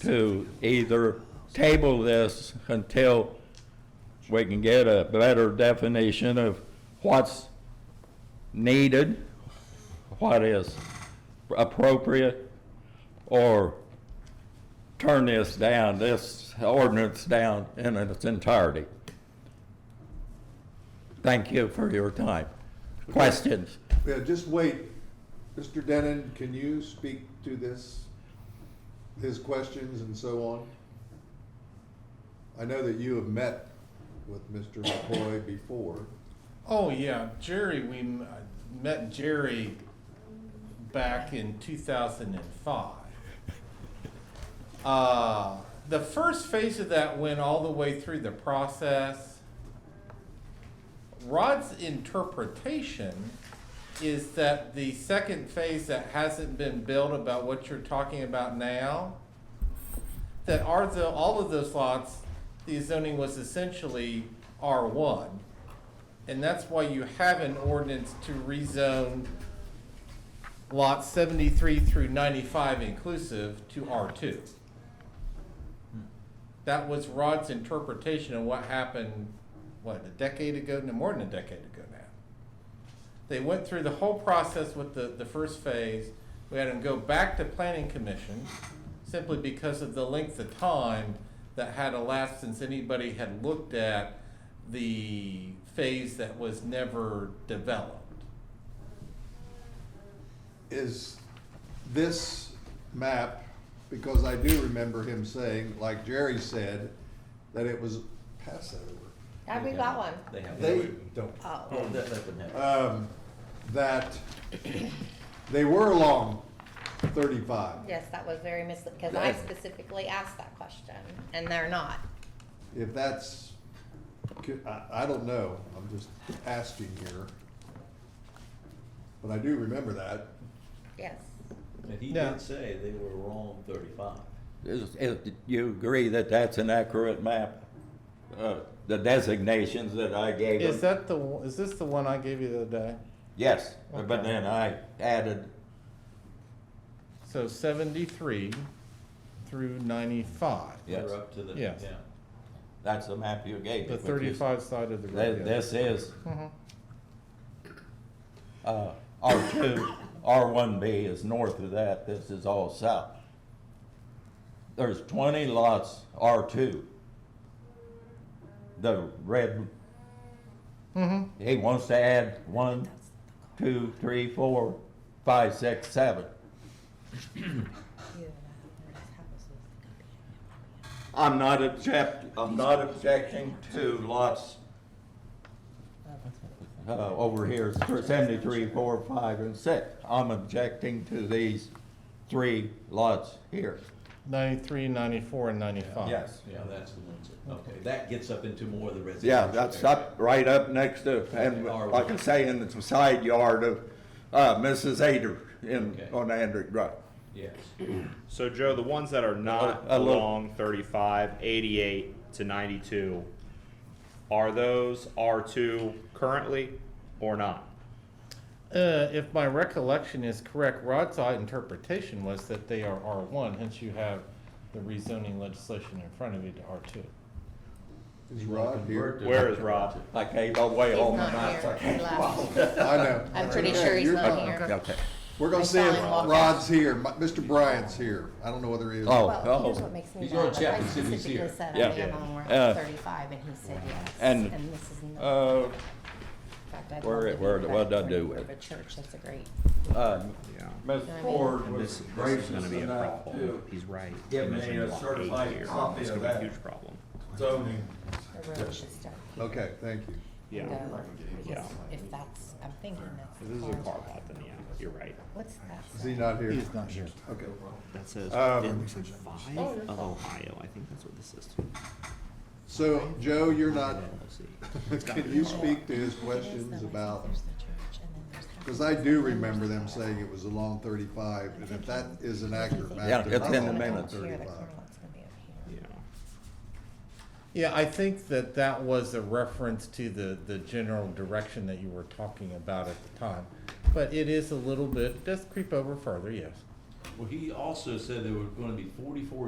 to either table this until we can get a better definition of what's needed, what is appropriate, or turn this down, this ordinance down in its entirety. Thank you for your time. Questions? Yeah, just wait. Mr. Denon, can you speak to this, his questions and so on? I know that you have met with Mr. McCoy before. Oh yeah, Jerry. We m- I met Jerry back in 2005. Uh, the first phase of that went all the way through the process. Rod's interpretation is that the second phase that hasn't been built about what you're talking about now, that are the, all of those lots, the zoning was essentially R1. And that's why you have an ordinance to rezone lots seventy-three through ninety-five inclusive to R two. That was Rod's interpretation of what happened, what, a decade ago, no, more than a decade ago now. They went through the whole process with the, the first phase, we had them go back to planning commission, simply because of the length of time that had elapsed since anybody had looked at the phase that was never developed. Is this map, because I do remember him saying, like Jerry said, that it was Passover. Have we got one? They have. They don't Oh, That, that wouldn't happen. um, that they were along 35. yes, that was very mis, because I Yeah. specifically asked that question, and they're not. If that's, I, I don't know, I'm just asking here. But I do remember that. Yes. Uh, And he No. did say they were wrong thirty-five. Is, is, do you agree that that's an accurate map? Uh, the designations that I gave Is them? that the, one- is this the one I gave you the other day? Yes, but then I added, So seventy-three through ninety-five. Yeah. Yes. They're up to the, yeah. Yes. that's the map you gave. The me, which is- thirty-five Mm-hmm. side of the Th- road. yeah. This is, uh, R two, R one B is north of that, this is all south. There's twenty lots, R two. The red. Mm-hmm. He wants to add one, two, three, four, five, six, seven. I'm not object, I'm not objecting to lots uh, over here, for seventy-three, four, five, and six. I'm objecting to these three lots here. Ninety-three, ninety-four, and ninety-five. Yes. Yeah, that's the ones, that- okay, that gets up into more of the residential. Yeah, that's area. up, right up next to, and Okay. like I say, in the side yard of, uh, Mrs. Ader in, Okay. on Andrew Drive. Yes, So Joe, the ones that are not A little- along 35, 88 to 92, are those R2 currently or not? Uh, if my recollection is correct, Rod's interpretation was that they are R one, hence you have the rezoning legislation in front of you to R two. Is Rod here? Where is Rob? I gave away He's all my not knots. here. I He can't- left. I know. I'm pretty sure he's You're not fine. here. Okay. We're gonna I see saw if him walk out. Rod's here. Mi- Mr. Bryant's here. I don't know whether he is. Oh. Well, here's what makes me He's gonna mad, check I and see if he's specifically here. said I Yeah. am on where Uh, I'm thirty-five, and he said yes, and, and this is. not- Uh, in fact, I'd where- love to be where- back what'd I in do front with Of a church, that's a great. uh, Ms. I mean- Ford And was This gracious is gonna be a enough problem. to He's right. Give He me mentioned a lot eight certified here. copy It's of gonna be a that. huge problem. zoning. The road should start here. Okay, thank you. Yeah. Go, Yeah. because uh, If that's, I'm thinking that's. This is a the car lot, then yeah, you're right. What's that? Is say? he not here? He's not here. Okay. That says Um, District Five of Ohio. I think that's what this is. too. So, Joe, you're not, LLC. can you speak to his questions about, because I do remember them saying it was along thirty-five, and if that is an accurate map. Yeah, they're it's not in the along minutes. Here, the 35. corner lot's gonna be over Yeah. here. Yeah, I think that that was a reference to the, the general direction that you were talking about at the time. But it is a little bit, does creep over further, yes. well, he also said there were gonna be forty-four